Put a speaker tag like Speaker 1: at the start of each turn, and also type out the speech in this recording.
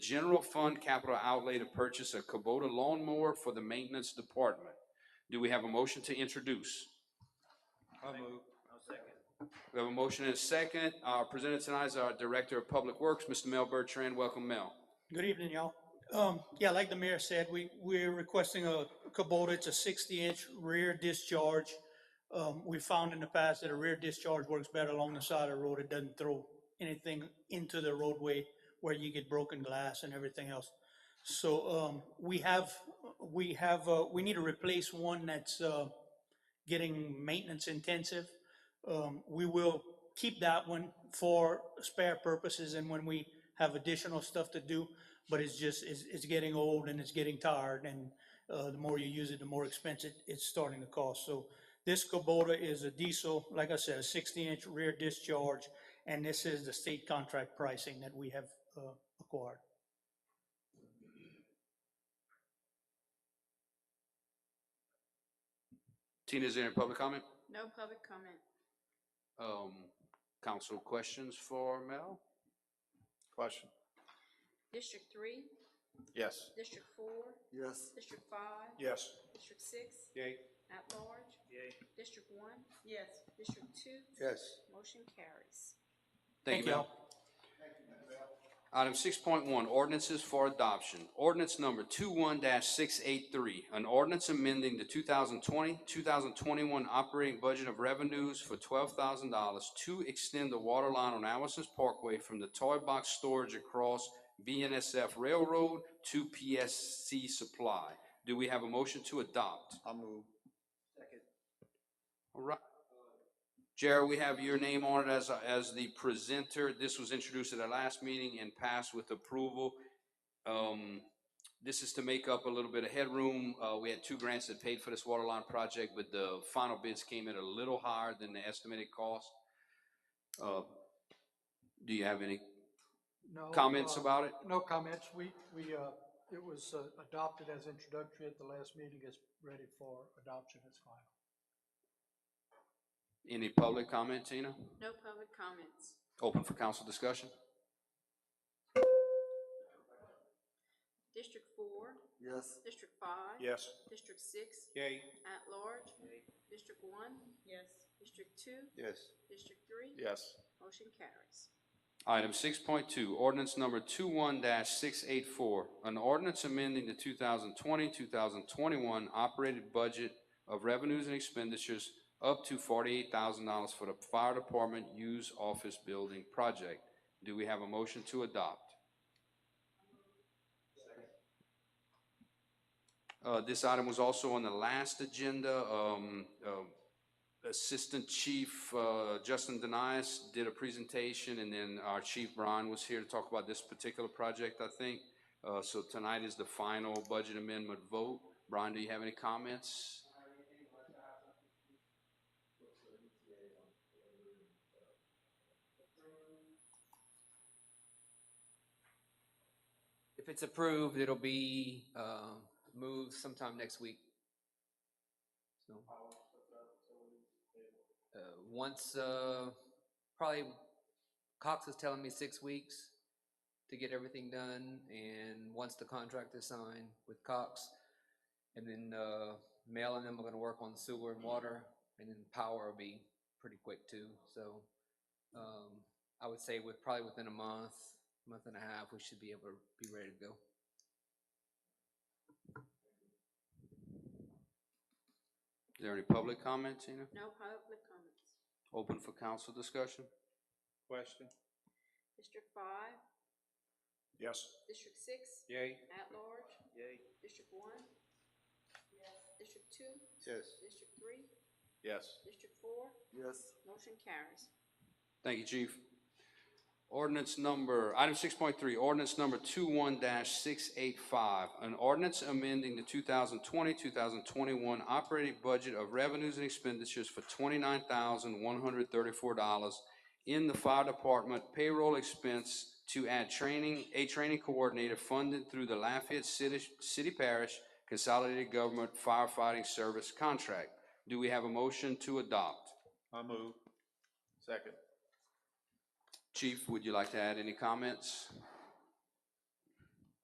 Speaker 1: General fund capital outlay to purchase a Kubota lawnmower for the maintenance department. Do we have a motion to introduce? We have a motion and a second. Uh, presented tonight is our Director of Public Works, Mr. Mel Bertrand. Welcome, Mel.
Speaker 2: Good evening, y'all. Um, yeah, like the mayor said, we, we're requesting a Kubota, it's a sixty-inch rear discharge. Um, we found in the past that a rear discharge works better along the side of the road, it doesn't throw anything into the roadway where you get broken glass and everything else. So, um, we have, we have, uh, we need to replace one that's, uh, getting maintenance intensive. Um, we will keep that one for spare purposes and when we have additional stuff to do. But it's just, it's, it's getting old and it's getting tired and, uh, the more you use it, the more expensive it's starting to cost. So this Kubota is a diesel, like I said, a sixty inch rear discharge. And this is the state contract pricing that we have, uh, acquired.
Speaker 1: Tina, is there any public comment?
Speaker 3: No public comment.
Speaker 1: Um, council questions for Mel?
Speaker 4: Question?
Speaker 3: District three,
Speaker 4: Yes.
Speaker 3: District four,
Speaker 4: Yes.
Speaker 3: District five,
Speaker 4: Yes.
Speaker 3: District six,
Speaker 4: Yay.
Speaker 3: at large. District one? Yes. District two?
Speaker 4: Yes.
Speaker 3: Motion carries.
Speaker 1: Thank
Speaker 2: Thank
Speaker 1: you,
Speaker 2: you.
Speaker 1: Mel. Item six point one, ordinances for adoption. Ordinance number 21 six eight three, an ordinance amending the 2020-2021 operating budget of revenues for twelve thousand dollars to extend the water line on Allison's Parkway from the toy box storage across BNSF Railroad to PSC Supply. Do we have a motion to adopt?
Speaker 4: I'll move.
Speaker 1: All right. Jared, we have your name on it as, as the presenter. This was introduced at our last meeting and passed with approval. Um, this is to make up a little bit of headroom. Uh, we had two grants that paid for this water line project, but the final bids came in a little higher than the estimated cost. Uh, do you have any
Speaker 5: No.
Speaker 1: comments
Speaker 5: uh,
Speaker 1: about it?
Speaker 5: No comments. We, we, uh, it was uh, adopted as introductory at the last meeting. It's ready for adoption as final.
Speaker 1: Any public comment, Tina?
Speaker 3: No public comments.
Speaker 1: Open for council discussion?
Speaker 3: District four,
Speaker 4: Yes.
Speaker 3: District five?
Speaker 4: Yes.
Speaker 3: District six,
Speaker 4: Yay.
Speaker 3: at large? District one? Yes. District two?
Speaker 4: Yes.
Speaker 3: District three?
Speaker 4: Yes.
Speaker 3: Motion carries.
Speaker 1: Item six point two, ordinance number 21 six eight four, an ordinance amending the 2020-2021 operated budget of revenues and expenditures up to forty-eight thousand dollars for the fire department use office building project. Do we have a motion to adopt? Uh, this item was also on the last agenda, um, um, Assistant Chief uh, Justin Denias did a presentation, and then our Chief Brian was here to talk about this particular project, I think. Uh, So tonight is the final budget amendment vote. Brian, do you have any comments?
Speaker 6: If it's approved, it'll be uh, moved sometime next week. So, Uh, Once, uh, probably Cox is telling me six weeks to get everything done, and once the contract is signed with Cox, and then uh, Mel and them are gonna work on sewer and water, and then power will be pretty quick too, so um, I would say with, probably within a month, month and a half, we should be able to be ready to go.
Speaker 1: Is there any public comment, Tina?
Speaker 3: No public comments.
Speaker 1: Open for council discussion?
Speaker 4: Question?
Speaker 3: District five,
Speaker 4: Yes.
Speaker 3: District six,
Speaker 4: Yay.
Speaker 3: at large?
Speaker 4: Yay.
Speaker 3: District one? Yes. District two?
Speaker 4: Yes.
Speaker 3: District three?
Speaker 4: Yes.
Speaker 3: District four?
Speaker 4: Yes.
Speaker 3: Motion carries.
Speaker 1: Thank you, Chief. Ordinance number, item six point three, ordinance number 21 six eight five. An ordinance amending the 2020-2021 operating budget of revenues and expenditures for twenty-nine thousand one hundred thirty-four dollars in the fire department payroll expense to add training, a training coordinator funded through the Lafayette City, City Parish Consolidated Government Firefighting Service Contract. Do we have a motion to adopt?
Speaker 4: I'll move. Second.
Speaker 1: Chief, would you like to add any comments?